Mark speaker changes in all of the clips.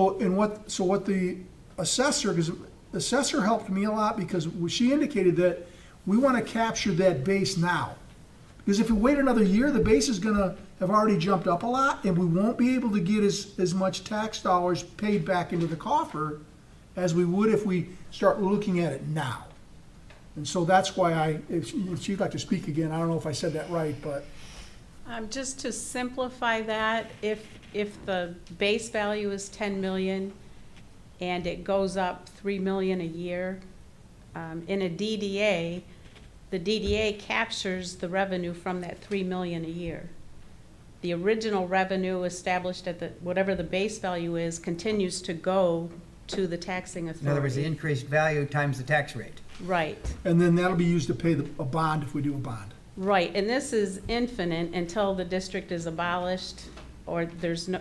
Speaker 1: Oh, And what, so what the assessor, because the assessor helped me a lot because she indicated that we want to capture that base now. Because if we wait another year, the base is gonna have already jumped up a lot and we won't be able to get as, as much tax dollars paid back into the coffer as we would if we start looking at it now. And so that's why I, if she- if she'd like to speak again, I don't know if I said that right, but
Speaker 2: Um, just to simplify that, if, if the base value is ten million and it goes up three million a year, um, in a DDA, the DDA captures the revenue from that three million a year. The original revenue established at the, whatever the base value is, continues to go to the taxing authority.
Speaker 3: In other words, the increased value times the tax rate.
Speaker 2: Right.
Speaker 1: and then that'll be used to pay the, a bond if we do a bond.
Speaker 2: Right, and this is infinite until the district is abolished, or there's no,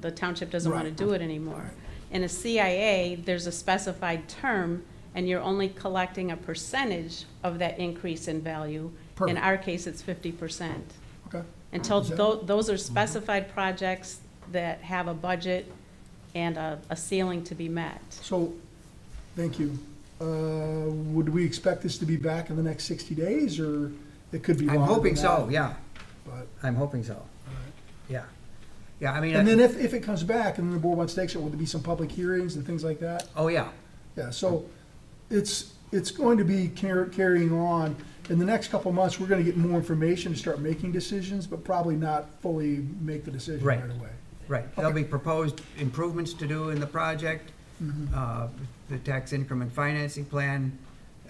Speaker 2: the township doesn't want to
Speaker 1: Right.
Speaker 2: do it anymore. In a CIA, there's a specified term, and you're only collecting a percentage of that increase in value. In
Speaker 1: Perfect.
Speaker 2: our case, it's fifty percent.
Speaker 1: Okay?
Speaker 2: Until
Speaker 1: Is that- Mm-hmm.
Speaker 2: tho- those are specified projects that have a budget and a a ceiling to be met.
Speaker 1: So, thank you. Uh, Would we expect this to be back in the next 60 days, or it could be
Speaker 3: I'm
Speaker 1: longer
Speaker 3: hoping
Speaker 1: than
Speaker 3: so,
Speaker 1: that,
Speaker 3: yeah,
Speaker 1: but-
Speaker 3: I'm hoping so. Yeah, yeah, I
Speaker 1: And then
Speaker 3: mean, I-
Speaker 1: if, if it comes back and the board wants to take it, will there be some public hearings and things like that?
Speaker 3: oh, yeah,
Speaker 1: Yeah, so it's, it's going to be car- carrying on. In the next couple months, we're going to get more information to start making decisions, but probably not fully make the decision right
Speaker 3: Right.
Speaker 1: away.
Speaker 3: right. There'll be proposed improvements to do in the project, uh, the tax increment financing plan,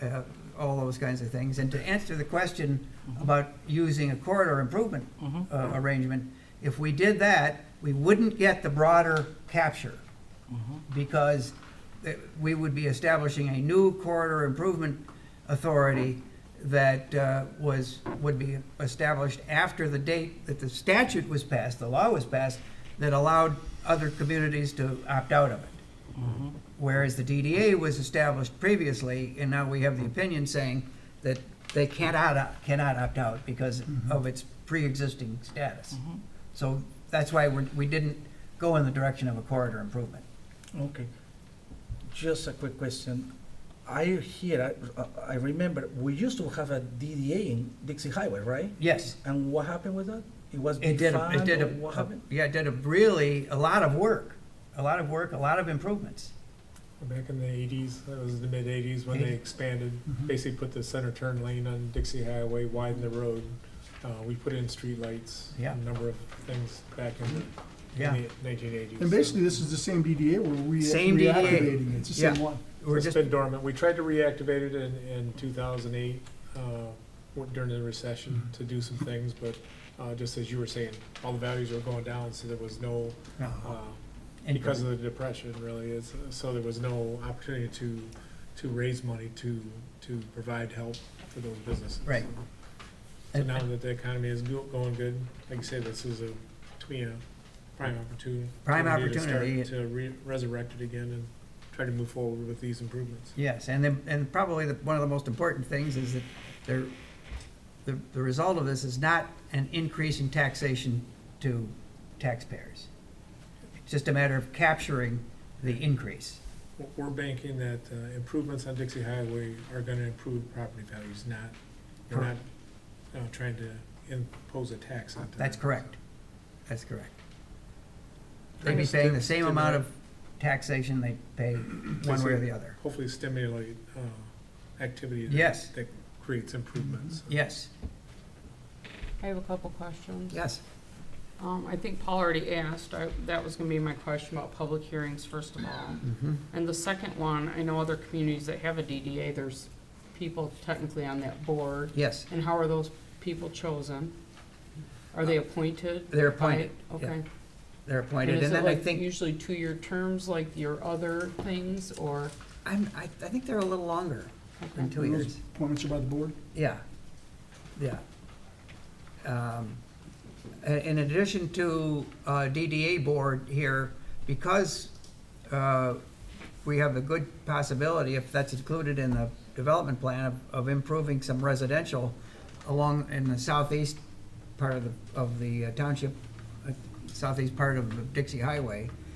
Speaker 3: uh, all those kinds of things. And to answer the question about using a corridor improvement uh, arrangement, if we did that, we wouldn't get the broader capture. because it- we would be establishing a new corridor improvement authority that uh, was, would be established after the date that the statute was passed, the law was passed, that allowed other communities to opt out of it. Whereas the DDA was established previously, and now we have the opinion saying that they cannot, cannot opt out because of its pre-existing status. So that's why we're, we didn't go in the direction of a corridor improvement.
Speaker 4: Okay. Just a quick question. I hear, I, I remember, we used to have a DDA in Dixie Highway, right?
Speaker 3: Yes.
Speaker 4: And what happened with that? It was
Speaker 3: It did, a- it
Speaker 4: defunct,
Speaker 3: did,
Speaker 4: or
Speaker 3: a-
Speaker 4: what happened?
Speaker 3: yeah, it did a really, a lot of work, a lot of work, a lot of improvements.
Speaker 5: Back in the eighties, that was the mid eighties, when they expanded,
Speaker 3: Mm-hmm.
Speaker 5: basically put the center turn lane on Dixie Highway, widened the road. Uh, we put in streetlights,
Speaker 3: Yeah.
Speaker 5: a number of things back in the,
Speaker 3: Yeah.
Speaker 5: in the nineteen eighties.
Speaker 1: And basically, this is the same DDA we're re-
Speaker 3: Same DDA.
Speaker 1: reactivating. it. It's the same
Speaker 3: Yeah.
Speaker 1: one.
Speaker 3: We're
Speaker 5: it's
Speaker 3: just,
Speaker 5: been dormant. We tried to reactivate it in, in two thousand eight, uh, w- during the recession
Speaker 3: Mm-hmm.
Speaker 5: to do some things, but, uh, just as you were saying, all the values were going down, so there was no,
Speaker 3: no,
Speaker 5: uh,
Speaker 3: and-
Speaker 5: because of the depression really is, so there was no opportunity to, to raise money to, to provide help for those businesses.
Speaker 3: Right.
Speaker 5: So now that the economy is go- going good, like you said, this is a, to me, a prime opportunity.
Speaker 3: Prime
Speaker 5: opportunity to start
Speaker 3: opportunity.
Speaker 5: To re- resurrect it again and try to move forward with these improvements.
Speaker 3: Yes, and then, and probably the, one of the most important things is that there, the, the result of this is not an increase in taxation to taxpayers. It's just a matter of capturing the increase.
Speaker 5: We're- We're banking that uh, improvements on Dixie Highway are gonna improve property values, not, we're not,
Speaker 3: Correct.
Speaker 5: uh, trying to impose a tax on.
Speaker 3: That's correct. That's correct. They'd be paying the same amount of taxation they pay one way or the other.
Speaker 5: hopefully stimulate uh, activity that-
Speaker 3: Yes.
Speaker 5: that creates improvements.
Speaker 3: Yes,
Speaker 6: I have a couple questions.
Speaker 3: yes.
Speaker 6: Um, I think Paul already asked, I, that was gonna be my question about public hearings, first of all.
Speaker 3: Mhm.
Speaker 6: And the second one, I know other communities that have a DDA, there's people technically on that board.
Speaker 3: Yes,
Speaker 6: And how are those people chosen? Are they appointed?
Speaker 3: They're appointed,
Speaker 6: by-
Speaker 3: yeah.
Speaker 6: Okay.
Speaker 3: they're
Speaker 6: And
Speaker 3: appointed,
Speaker 6: is
Speaker 3: and
Speaker 6: it
Speaker 3: then I
Speaker 6: like
Speaker 3: think,
Speaker 6: usually two-year terms like your other things, or?
Speaker 3: I'm, I, I think they're a little longer than two
Speaker 1: And those
Speaker 3: years.
Speaker 1: Appointments are by the board?
Speaker 3: Yeah, yeah. Um, a- In addition to uh, DDA board here, because uh, we have the good possibility, if that's included in the development plan, of- of improving some residential along in the uh, southeast part of the, of the township, uh, southeast part of Dixie Highway,